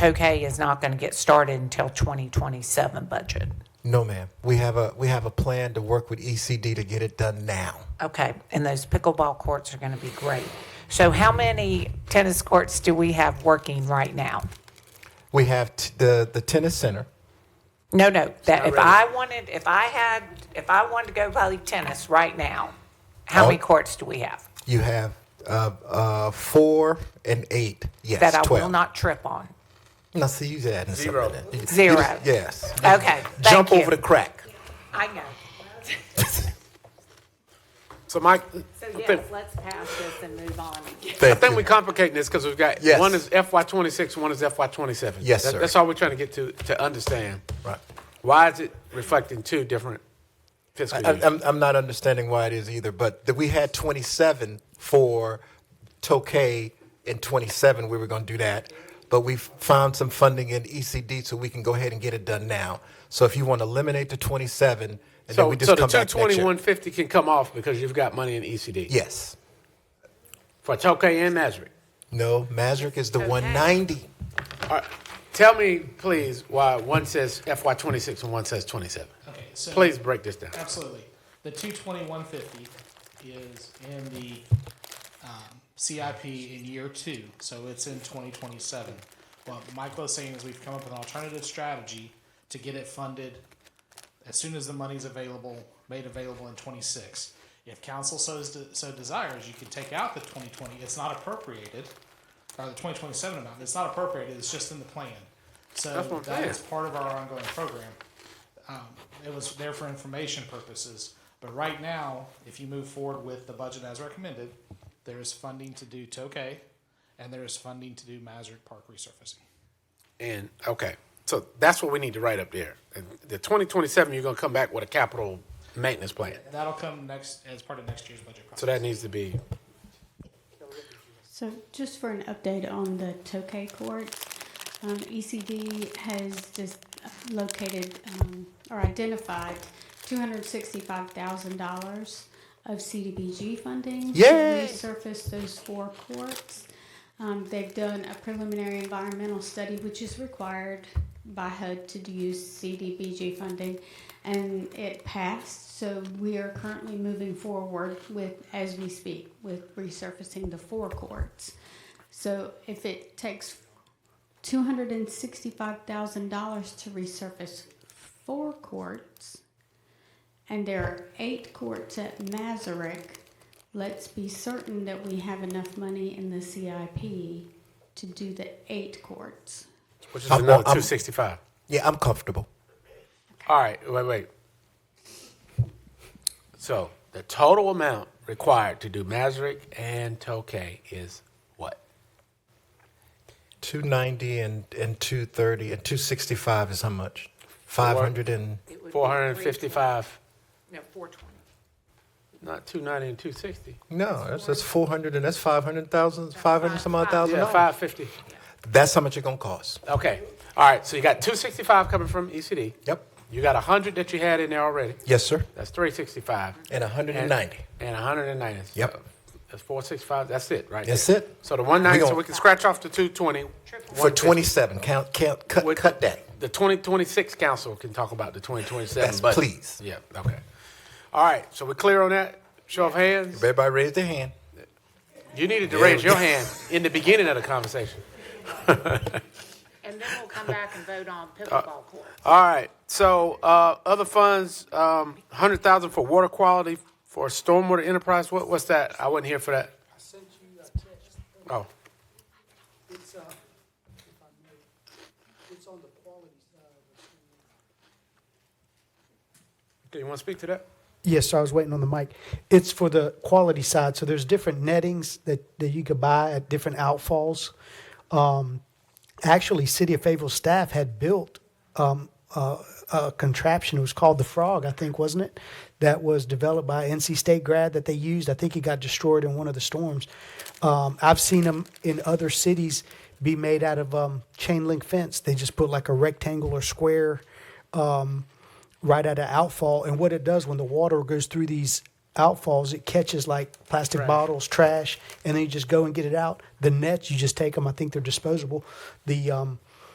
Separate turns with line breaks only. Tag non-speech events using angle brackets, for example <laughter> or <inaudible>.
Tokay is not going to get started until 2027 budget.
No, ma'am. We have a, we have a plan to work with ECD to get it done now.
Okay, and those pickleball courts are going to be great. So how many tennis courts do we have working right now?
We have t- the, the tennis center.
No, no, that if I wanted, if I had, if I wanted to go play tennis right now, how many
Oh.
courts do we have?
You have uh, uh, four and eight. Yes,
That I
12.
will not trip on.
Now, see, you just adding
Zero.
something in. You- you just-
Zero.
Yes.
Okay, thank
Jump
you.
over the crack.
I know.
So Mike,
So
I think,
yes, let's pass this and move on.
I think we're complicating this because we've got,
Yes.
one is FY twenty-six, one is FY twenty-seven.
Yes,
That-
sir.
That's all we're trying to get to, to understand.
Right.
Why is it reflecting two different fiscal
I-
years?
I'm, I'm not understanding why it is either, but that we had 27 for Tokay in 27. We were going to do that, but we found some funding in ECD so we can go ahead and get it done now. So if you want to eliminate the 27, and then
So,
we just
so the
come
two
back next year.
twenty-one fifty can come off because you've got money in ECD.
Yes.
For Tokay and Nazareth.
No, Mazrick is the 190.
All right. Tell me, please, why one says FY twenty-six and one says twenty-seven.
Okay, so.
Please break this down.
Absolutely. The two twenty-one fifty is in the, um, CIP in year two, so it's in twenty twenty-seven. What Michael is saying is we've come up with an alternative strategy to get it funded as soon as the money's available, made available in twenty-six. If council so, so desires, you could take out the twenty twenty, it's not appropriated, or the twenty twenty-seven amount, it's not appropriated, it's just in the plan.
That's what
So
I'm
that
saying.
is part of our ongoing program Um, it was there for information purposes. But right now, if you move forward with the budget as recommended, there is funding to do Tokay, and there is funding to do Mazurk Park resurfacing.
And, okay, so that's what we need to write up there. And The twenty twenty-seven, you're gonna come back with a capital maintenance plan.
That'll come next as part of next year's budget process.
So that needs to be
So just for an update on the Tokay Court, um, ECD has just located um, or identified $265,000 of CDBG funding
Yay!
to resurface those four courts. Um, they've done a preliminary environmental study, which is required by HUD to do- use CDBG funding, and it passed. So we are currently moving forward with, as we speak, with resurfacing the four courts. So if it takes two hundred and sixty-five thousand dollars to resurface four courts, and there are eight courts at Mazarek. Let's be certain that we have enough money in the CIP to do the eight courts.
Which is
I'm-
another
I'm-
265.
Yeah, I'm comfortable.
All right, wait, wait. So the total amount required to do Mazurek and Tokay is what?
290 and, and 230 and 265 is how much? 500 and
455,
No, 420.
not 290 and 260.
no, that's, that's 400 and that's 500,000, 500 some odd thousand.
Yeah,
dollars.
550.
That's how much it's gonna cost.
Okay. All right, so you got 265 coming from ECD.
Yep.
You got 100 that you had in there already.
Yes, sir.
That's 365.
And 190.
And 190.
Yep.
That's 465. That's it, right?
That's
there.
it.
So the 190, so
gon-
we can scratch off the 220.
For
150.
27, count, count, cut,
With-
cut that.
The 2026 council can talk about the 2027
Yes,
budget.
please.
Yeah, okay. All right, so we're clear on that? Show of hands?
Everybody raise their hand.
You needed to raise your hand in the beginning of
<laughs>
the conversation.
And then we'll come back and vote on pickleball court.
Uh, All right, so uh, other funds, um, 100,000 for water quality for stormwater enterprise, what, what's that? I wasn't here for that. Oh,
It's, uh, if I may, it's on the quality side of the
do you want to speak to that?
Yes, I was waiting on the mic. It's for the quality side. So there's different nettings that, that you could buy at different outfalls. Um, actually, City of Fayetteville staff had built um, uh, a contraption. It was called the Frog, I think, wasn't it? That was developed by NC State grad that they used. I think it got destroyed in one of the storms. Um, I've seen them in other cities be made out of um, chain link fence. They just put like a rectangle or square right at an outfall. And what it does when the water goes through these outfalls, it catches like plastic bottles, trash, and then you just go and get it out. The nets, you just take them. I think they're disposable. The um,